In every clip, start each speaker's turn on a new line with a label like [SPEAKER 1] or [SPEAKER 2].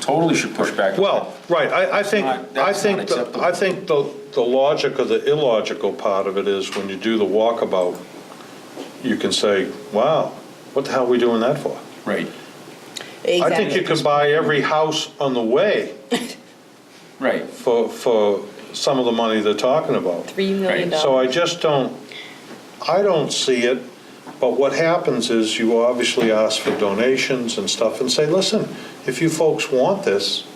[SPEAKER 1] totally should push back.
[SPEAKER 2] Well, right, I, I think,
[SPEAKER 1] not-
[SPEAKER 2] I
[SPEAKER 1] that's
[SPEAKER 2] think,
[SPEAKER 1] not
[SPEAKER 2] the-
[SPEAKER 1] acceptable.
[SPEAKER 2] I think the, the logic or the illogical part of it is when you do the walkabout, you can say, wow, what the hell are we doing that for?
[SPEAKER 1] Right,
[SPEAKER 2] I think you could buy every house on the way
[SPEAKER 1] right.
[SPEAKER 2] for, for some of the money they're talking about.
[SPEAKER 3] Three million
[SPEAKER 2] So
[SPEAKER 3] dollars.
[SPEAKER 2] I just don't, I don't see it, but what happens is you obviously ask for donations and stuff and say, listen, if you folks want this,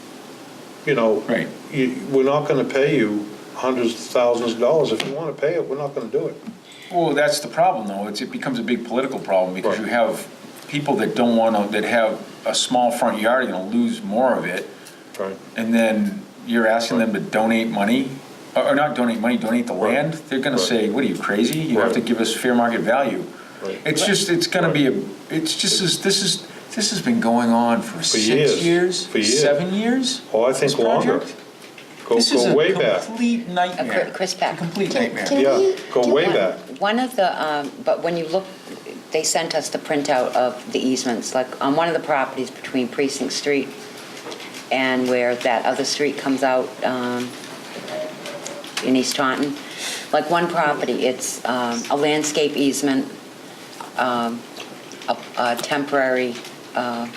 [SPEAKER 2] you know,
[SPEAKER 1] Right.
[SPEAKER 2] you- we're not going to pay you hundreds of thousands of dollars. If you want to pay it, we're not going to do it.
[SPEAKER 1] Well, that's the problem, though. It's, it becomes a big political problem because you
[SPEAKER 2] Right.
[SPEAKER 1] have people that don't want to, that have a small front yard, are going to lose more of it.
[SPEAKER 2] Right.
[SPEAKER 1] And then you're asking them to donate money, or or not donate money, donate the
[SPEAKER 2] Right.
[SPEAKER 1] land. They're going to
[SPEAKER 2] Right.
[SPEAKER 1] say, what are you, crazy? You have to
[SPEAKER 2] Right.
[SPEAKER 1] give us fair market value.
[SPEAKER 2] Right.
[SPEAKER 1] It's just, it's going to be, a. it's just, this this is, this has been going on for six
[SPEAKER 2] years.
[SPEAKER 1] years?
[SPEAKER 2] For years.
[SPEAKER 1] Seven years?
[SPEAKER 2] Oh, I think
[SPEAKER 1] This
[SPEAKER 2] longer.
[SPEAKER 1] project?
[SPEAKER 2] Go,
[SPEAKER 1] This is
[SPEAKER 2] go
[SPEAKER 1] a
[SPEAKER 2] way back.
[SPEAKER 1] complete nightmare.
[SPEAKER 4] Uh, Chris
[SPEAKER 1] It's a
[SPEAKER 4] Beck.
[SPEAKER 1] Complete
[SPEAKER 4] Can-
[SPEAKER 1] nightmare.
[SPEAKER 4] can
[SPEAKER 2] Yeah,
[SPEAKER 4] we
[SPEAKER 2] go
[SPEAKER 4] do
[SPEAKER 2] way
[SPEAKER 4] one-
[SPEAKER 2] back.
[SPEAKER 4] One of the, um, but when you look, they sent us the printout of the easements, like on one of the properties between Precinct Street and where that other street comes out um, in East Taunton. Like one property, it's um, a landscape easement, um, a a temporary uh,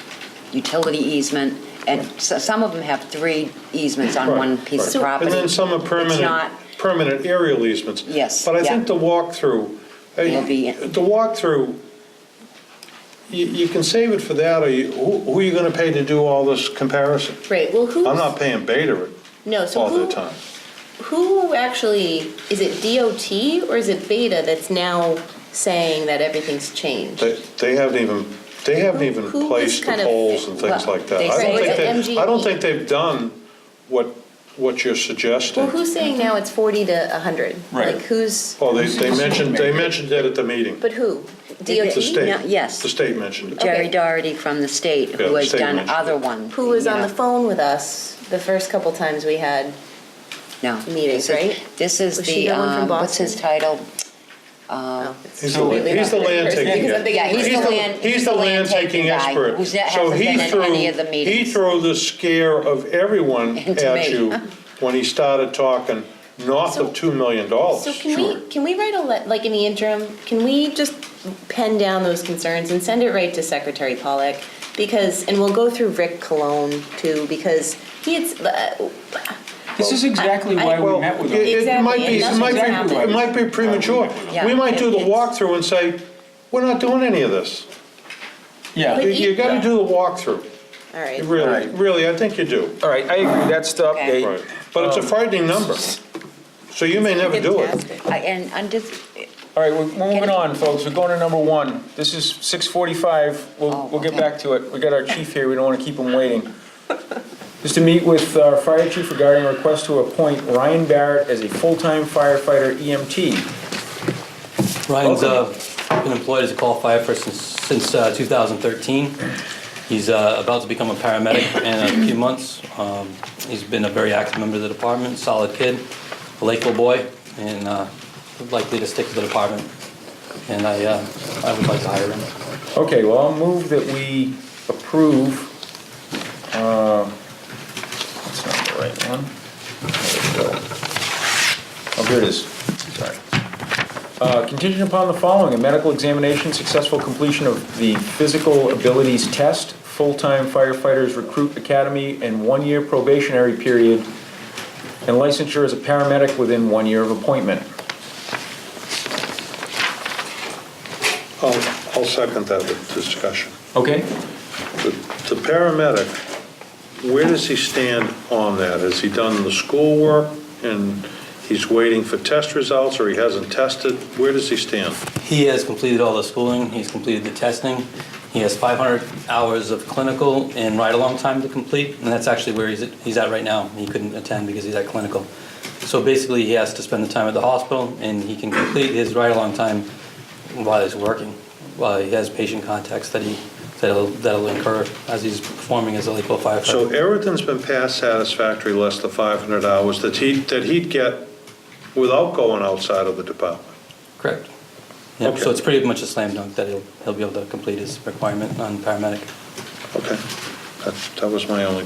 [SPEAKER 4] utility easement, and so- some of them have three easements on
[SPEAKER 2] Right,
[SPEAKER 4] one piece of
[SPEAKER 2] right.
[SPEAKER 4] property.
[SPEAKER 2] And then some are
[SPEAKER 4] It's
[SPEAKER 2] permanent,
[SPEAKER 4] not-
[SPEAKER 2] permanent aerial easements.
[SPEAKER 4] Yes,
[SPEAKER 2] But I
[SPEAKER 4] yeah.
[SPEAKER 2] think the walkthrough,
[SPEAKER 4] Will be-
[SPEAKER 2] eh, the walkthrough, you, you can save it for that, or you, who who are you gonna pay to do all this comparison?
[SPEAKER 5] Right, well, who's?
[SPEAKER 2] I'm not paying Beta
[SPEAKER 5] No, so
[SPEAKER 2] all the
[SPEAKER 5] who,
[SPEAKER 2] time.
[SPEAKER 5] who actually, is it DOT or is it Beta that's now saying that everything's changed?
[SPEAKER 2] They, they haven't even, they haven't even
[SPEAKER 5] Who- who
[SPEAKER 2] placed
[SPEAKER 5] was
[SPEAKER 2] the
[SPEAKER 5] kind of-
[SPEAKER 2] poles and things
[SPEAKER 4] well,
[SPEAKER 2] like that.
[SPEAKER 4] they
[SPEAKER 2] I
[SPEAKER 4] say
[SPEAKER 2] don't
[SPEAKER 5] it's
[SPEAKER 2] think they, I don't
[SPEAKER 5] MGE.
[SPEAKER 2] think they've done what, what you're
[SPEAKER 5] Well,
[SPEAKER 2] suggesting.
[SPEAKER 5] who's saying now it's 40 to 100?
[SPEAKER 1] Right.
[SPEAKER 5] Like, who's,
[SPEAKER 2] Well, they, they mentioned, they mentioned that at the meeting,
[SPEAKER 5] but who?
[SPEAKER 4] they-
[SPEAKER 2] the
[SPEAKER 5] DOT?
[SPEAKER 4] No,
[SPEAKER 2] state.
[SPEAKER 4] yes.
[SPEAKER 2] The state mentioned it.
[SPEAKER 4] Jerry
[SPEAKER 5] Okay.
[SPEAKER 4] Doherty from the state,
[SPEAKER 2] Yeah,
[SPEAKER 4] who
[SPEAKER 2] the
[SPEAKER 4] has
[SPEAKER 2] state
[SPEAKER 4] done
[SPEAKER 2] mentioned it.
[SPEAKER 4] other ones.
[SPEAKER 5] Who was
[SPEAKER 4] you
[SPEAKER 5] on
[SPEAKER 4] know.
[SPEAKER 5] the phone with us the first couple times we had?
[SPEAKER 4] No.
[SPEAKER 5] meetings,
[SPEAKER 4] This is-
[SPEAKER 5] right?
[SPEAKER 4] This is
[SPEAKER 5] Was she
[SPEAKER 4] the,
[SPEAKER 5] the one from
[SPEAKER 4] um, what's his
[SPEAKER 5] Boston?
[SPEAKER 4] title?
[SPEAKER 5] oh, it's
[SPEAKER 2] He's
[SPEAKER 1] So-
[SPEAKER 2] the, he's the land
[SPEAKER 5] Because
[SPEAKER 2] taking.
[SPEAKER 5] I'm thinking-
[SPEAKER 4] Yeah, he's
[SPEAKER 2] He's
[SPEAKER 4] the
[SPEAKER 2] the-
[SPEAKER 4] land,
[SPEAKER 2] He's the land taking
[SPEAKER 4] guy
[SPEAKER 2] expert.
[SPEAKER 4] who's- that
[SPEAKER 2] So
[SPEAKER 4] hasn't
[SPEAKER 2] he
[SPEAKER 4] been at
[SPEAKER 2] threw-
[SPEAKER 4] any of the
[SPEAKER 2] He
[SPEAKER 4] meetings.
[SPEAKER 2] threw the scare of everyone
[SPEAKER 4] Into
[SPEAKER 2] at
[SPEAKER 4] me.
[SPEAKER 2] you when he started talking north
[SPEAKER 5] So-
[SPEAKER 2] of $2 million.
[SPEAKER 5] So can we, can we write a, le- like in the interim, can we just pen down those concerns and send it right to Secretary Pollock? Because, and we'll go through Rick Cologne too, because he had, uh,
[SPEAKER 1] This is exactly why we
[SPEAKER 2] Well,
[SPEAKER 1] met with
[SPEAKER 2] it-
[SPEAKER 1] them.
[SPEAKER 2] it might be, it
[SPEAKER 5] Exactly,
[SPEAKER 2] might
[SPEAKER 1] and nothing's
[SPEAKER 2] be, it
[SPEAKER 1] happened.
[SPEAKER 2] might be premature.
[SPEAKER 4] Yeah.
[SPEAKER 2] We might do the
[SPEAKER 5] It's-
[SPEAKER 2] walkthrough and say, we're not doing any of this.
[SPEAKER 1] Yeah.
[SPEAKER 2] You- You
[SPEAKER 5] you-
[SPEAKER 2] gotta do the walkthrough,
[SPEAKER 5] all right.
[SPEAKER 2] really,
[SPEAKER 1] Right.
[SPEAKER 2] really, I think you do.
[SPEAKER 6] All right, I agree, that's the
[SPEAKER 4] Okay.
[SPEAKER 6] update.
[SPEAKER 2] Right. But it's a
[SPEAKER 1] Um,
[SPEAKER 2] frightening number, so you may never do it.
[SPEAKER 5] Fantastic.
[SPEAKER 4] I- And under,
[SPEAKER 6] All right, we're moving on, folks, we're going to number one. This is 6:45,
[SPEAKER 4] Oh,
[SPEAKER 6] we'll, we'll get
[SPEAKER 4] okay.
[SPEAKER 6] back to it. We got our chief here, we don't want to keep him waiting. Is to meet with our fire chief regarding a request to appoint Ryan Barrett as a full-time firefighter E EMT.
[SPEAKER 7] Ryan's uh, been employed as a qualified firefighter since, since uh, 2013. He's uh, about to become a paramedic in a few months. Um, He's been a very active member of the department, solid kid, a Lakeville boy, and uh, likely to stick with the department. And I, uh, I would like to hire him.
[SPEAKER 6] Okay, well, I'll move that we approve, um, that's not the right one. There we go. Oh, here it is, sorry. Uh, Contingent upon the following, a medical examination, successful completion of the physical abilities test, full-time firefighters recruit academy, and one-year probationary period, and licensure as a paramedic within one year of appointment.
[SPEAKER 2] I'll, I'll second that with discussion.
[SPEAKER 6] Okay?
[SPEAKER 2] The the paramedic, where does he stand on that? Has he done the schoolwork and he's waiting for test results or he hasn't tested? Where does he stand?
[SPEAKER 7] He has completed all the schooling, he's completed the testing, he has 500 hours of clinical and ride-along time to complete, and that's actually where he's at, he's at right now. He couldn't attend because he's at clinical. So basically, he has to spend the time at the hospital, and he can complete his ride-along time while he's working, while he has patient contacts that he, that'll, that'll incur as he's performing as a Lakeville
[SPEAKER 2] So
[SPEAKER 7] firefighter.
[SPEAKER 2] everything's been past satisfactory, less the 500 hours that he, that he'd get without going outside of the department.
[SPEAKER 7] Correct. Yeah,
[SPEAKER 2] Okay.
[SPEAKER 7] so it's pretty much a slam dunk that he'll, he'll be able to complete his requirement on paramedic.
[SPEAKER 2] Okay. That that was my only